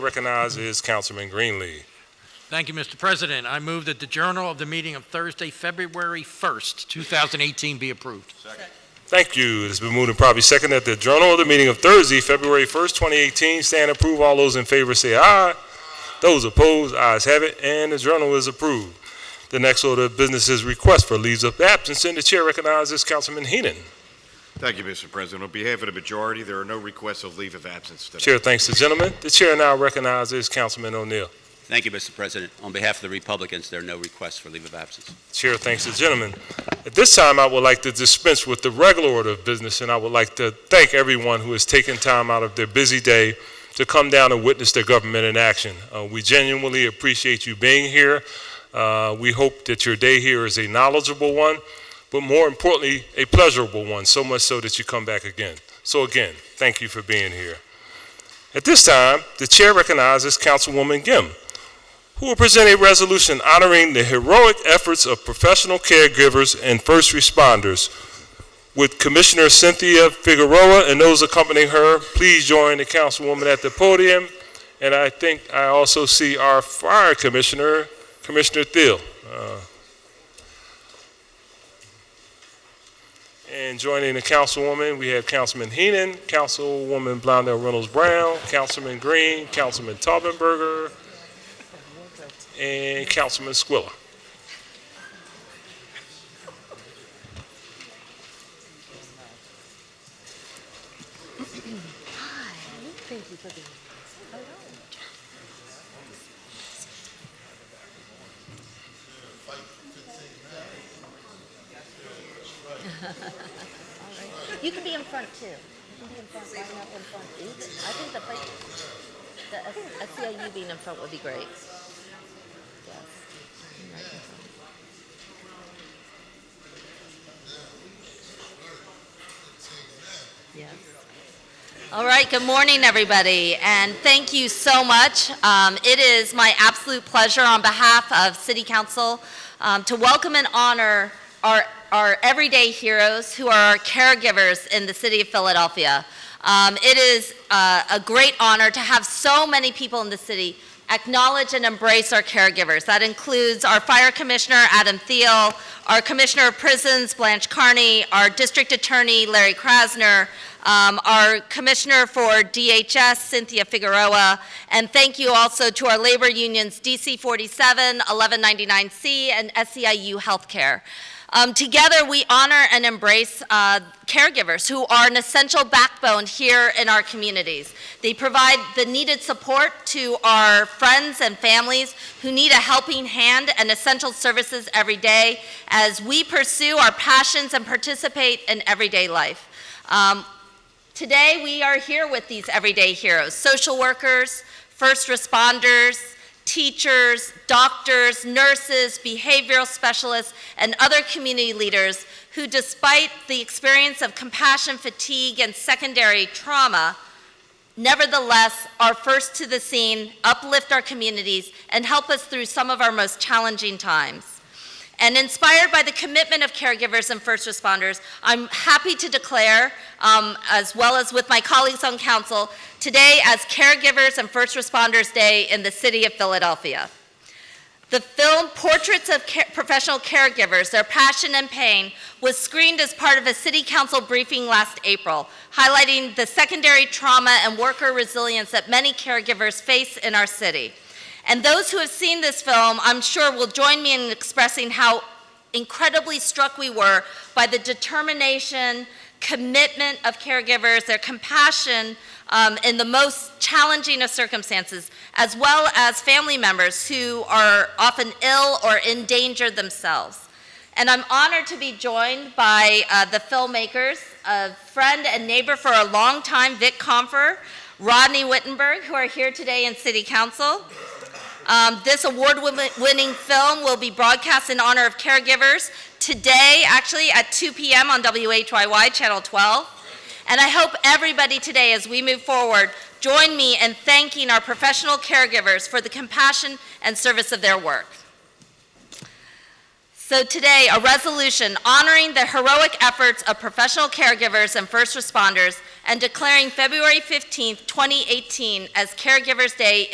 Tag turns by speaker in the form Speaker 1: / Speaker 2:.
Speaker 1: Recognized is Councilman Greenlee.
Speaker 2: Thank you, Mr. President. I move that the journal of the meeting of Thursday, February 1st, 2018 be approved.
Speaker 1: Thank you. It's been moved and probably second that the Journal of the meeting of Thursday, February 1st, 2018, stand approved. All those in favor say aye. Those opposed, ayes have it, and the journal is approved. The next order of business is request for leaves of absence, and the chair recognizes Councilman Heenan.
Speaker 3: Thank you, Mr. President. On behalf of the majority, there are no requests of leave of absence today.
Speaker 1: Chair thanks the gentleman. The chair now recognizes Councilman O'Neill.
Speaker 4: Thank you, Mr. President. On behalf of the Republicans, there are no requests for leave of absence.
Speaker 1: Chair thanks the gentleman. At this time, I would like to dispense with the regular order of business, and I would like to thank everyone who has taken time out of their busy day to come down and witness their government in action. Uh, we genuinely appreciate you being here. Uh, we hope that your day here is a knowledgeable one, but more importantly, a pleasurable one, so much so that you come back again. So again, thank you for being here. At this time, the chair recognizes Councilwoman Gim who will present a resolution honoring the heroic efforts of professional caregivers and first responders. With Commissioner Cynthia Figueroa and those accompanying her, please join the councilwoman at the podium. And I think I also see our fire commissioner, Commissioner Thiel. Uh, And joining the councilwoman, we have Councilman Heenan, Councilwoman Blondell Reynolds Brown, Councilman Green, Councilman Taubenberger, and Eh, Councilman Squilla.
Speaker 5: Thank you for being here. All right. You can be in front too. You can be in front, line up in front. You can- I think the fight, the, I feel you being in front would be great. Yes. Right in front. Yes. All right, good morning, everybody, and thank you so much. Um, It is my absolute pleasure on behalf of City Council um, to welcome and honor our our everyday heroes who are our caregivers in the city of Philadelphia. Um, It is uh, a great honor to have so many people in the city acknowledge and embrace our caregivers. That includes our Fire Commissioner, Adam Thiel, our Commissioner of Prisons, Blanche Carney, our District Attorney, Larry Krasner, um, our Commissioner for DHS, Cynthia Figueroa, and thank you also to our labor unions, DC 47, 1199C, and SEIU Healthcare. Um, together, we honor and embrace uh, caregivers who are an essential backbone here in our communities. They provide the needed support to our friends and families who need a helping hand and essential services every day as we pursue our passions and participate in everyday life. Um, Today, we are here with these everyday heroes social workers, first responders, teachers, doctors, nurses, behavioral specialists, and other community leaders who, despite the experience of compassion fatigue and secondary trauma, nevertheless are first to the scene, uplift our communities, and help us through some of our most challenging times. And inspired by the commitment of caregivers and first responders, I'm happy to declare, um, as well as with my colleagues on council, today as Caregivers and First Responders Day in the city of Philadelphia. The film Portraits of Ca- Professional Caregivers, Their Passion and Pain, was screened as part of a city council briefing last April, highlighting the secondary trauma and worker resilience that many caregivers face in our city. And those who have seen this film, I'm sure, will join me in expressing how incredibly struck we were by the determination, commitment of caregivers, their compassion um, in the most challenging of circumstances, as well as family members who are often ill or in danger themselves. And I'm honored to be joined by uh, the filmmakers, a friend and neighbor for a long time, Vic Comfer, Rodney Wittenberg, who are here today in City Council. Um, this award-winning film will be broadcast in honor of caregivers today, actually, at 2 p.m. on WHYY Channel 12. And I hope everybody today, as we move forward, join me in thanking our professional caregivers for the compassion and service of their work. So today, a resolution honoring the heroic efforts of professional caregivers and first responders and declaring February 15th, 2018 as Caregivers Day